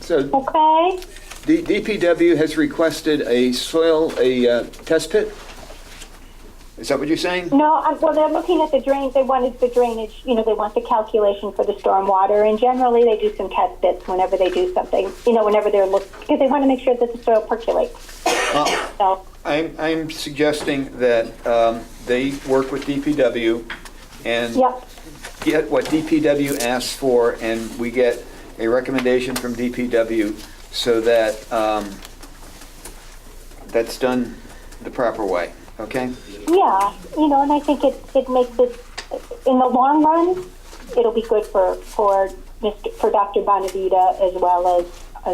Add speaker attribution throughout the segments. Speaker 1: So
Speaker 2: Okay,
Speaker 1: D- DPW has requested a soil, a uh, test pit? Is that what you're saying?
Speaker 2: no, i well, they're looking at the drains, they wanted the drainage, you know, they want the calculation for the stormwater, and generally, they do some test bits whenever they do something, you know, whenever they're look, because they want to make sure that the soil percolates,
Speaker 1: Uh,
Speaker 2: so,
Speaker 1: I'm, I'm suggesting that um, they work with DPW and
Speaker 2: yep,
Speaker 1: get what DPW asks for, and we get a recommendation from DPW so that um, that's done the proper way, okay?
Speaker 2: yeah, you know, and I think it, it makes it, in the long run, it'll be good for, for Mr., for Dr. Bonavita as well as,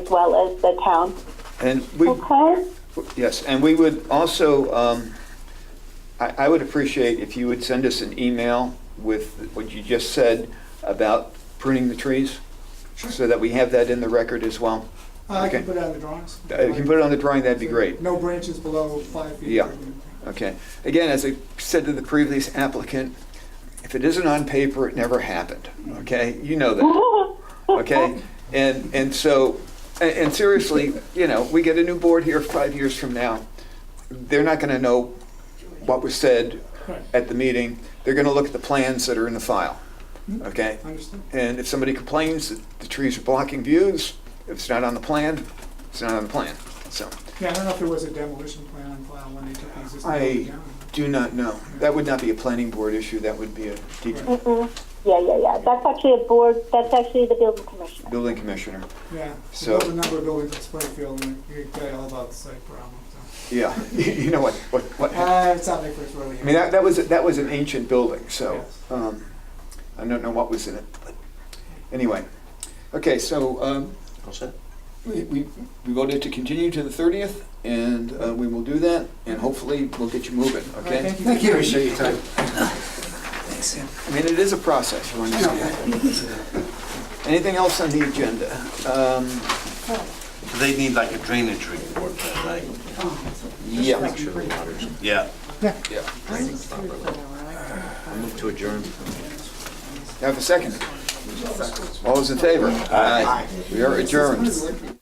Speaker 2: as well as the town,
Speaker 1: And we,
Speaker 2: okay?
Speaker 1: Yes, and we would also, um, I I would appreciate if you would send us an email with what you just said about pruning the trees, so that we have that in the record as well.
Speaker 3: Uh, I can
Speaker 1: Okay.
Speaker 3: put it on the drawings.
Speaker 1: Uh, If you can put it on the drawing, that'd be great.
Speaker 3: No branches below five feet.
Speaker 1: Yeah. Okay. Again, as I said to the previous applicant, if it isn't on paper, it never happened, okay? You know that, okay? And, and so, and- and seriously, you know, we get a new board here five years from now, they're not gonna know what was said
Speaker 3: Right.
Speaker 1: at the meeting. They're gonna look at the plans that are in the file, okay?
Speaker 3: Understood.
Speaker 1: And if somebody complains that the trees are blocking views, if it's not on the plan, it's not on the plan, so.
Speaker 3: Yeah, I don't know if there was a demolition plan on file when they took the existing
Speaker 1: I-
Speaker 3: building down.
Speaker 1: Do not know. That would not be a planning board issue, that would be a D-
Speaker 2: Mm-mm. Yeah, yeah, yeah. That's actually a board, that's actually the building commissioner.
Speaker 1: building commissioner.
Speaker 3: Yeah,
Speaker 1: So-
Speaker 3: there's a number of buildings in Springfield, and you can tell you all about the site problem. so.
Speaker 1: Yeah, you know what, what, what, I
Speaker 3: Uh, it's not my first rodeo.
Speaker 1: mean, that, that was, that was an ancient building, so,
Speaker 3: Yes.
Speaker 1: um, I don't know what was in it, but, anyway. Okay, so, um,
Speaker 4: All set?
Speaker 1: we, we we voted to continue to the thirtieth, and, uh, we will do that, and hopefully we'll get you moving,
Speaker 3: All right,
Speaker 1: okay?
Speaker 3: thank you.
Speaker 4: Thank you, appreciate your time.
Speaker 1: I mean, it is a process, you understand? Anything else on the agenda? Um,
Speaker 4: They need like a drainage report, then, right?
Speaker 1: yeah,
Speaker 4: Sure the water's- Yeah.
Speaker 1: yeah.
Speaker 4: I move to adjourn.
Speaker 1: Have a second. All those in favor? Aye. We are adjourned.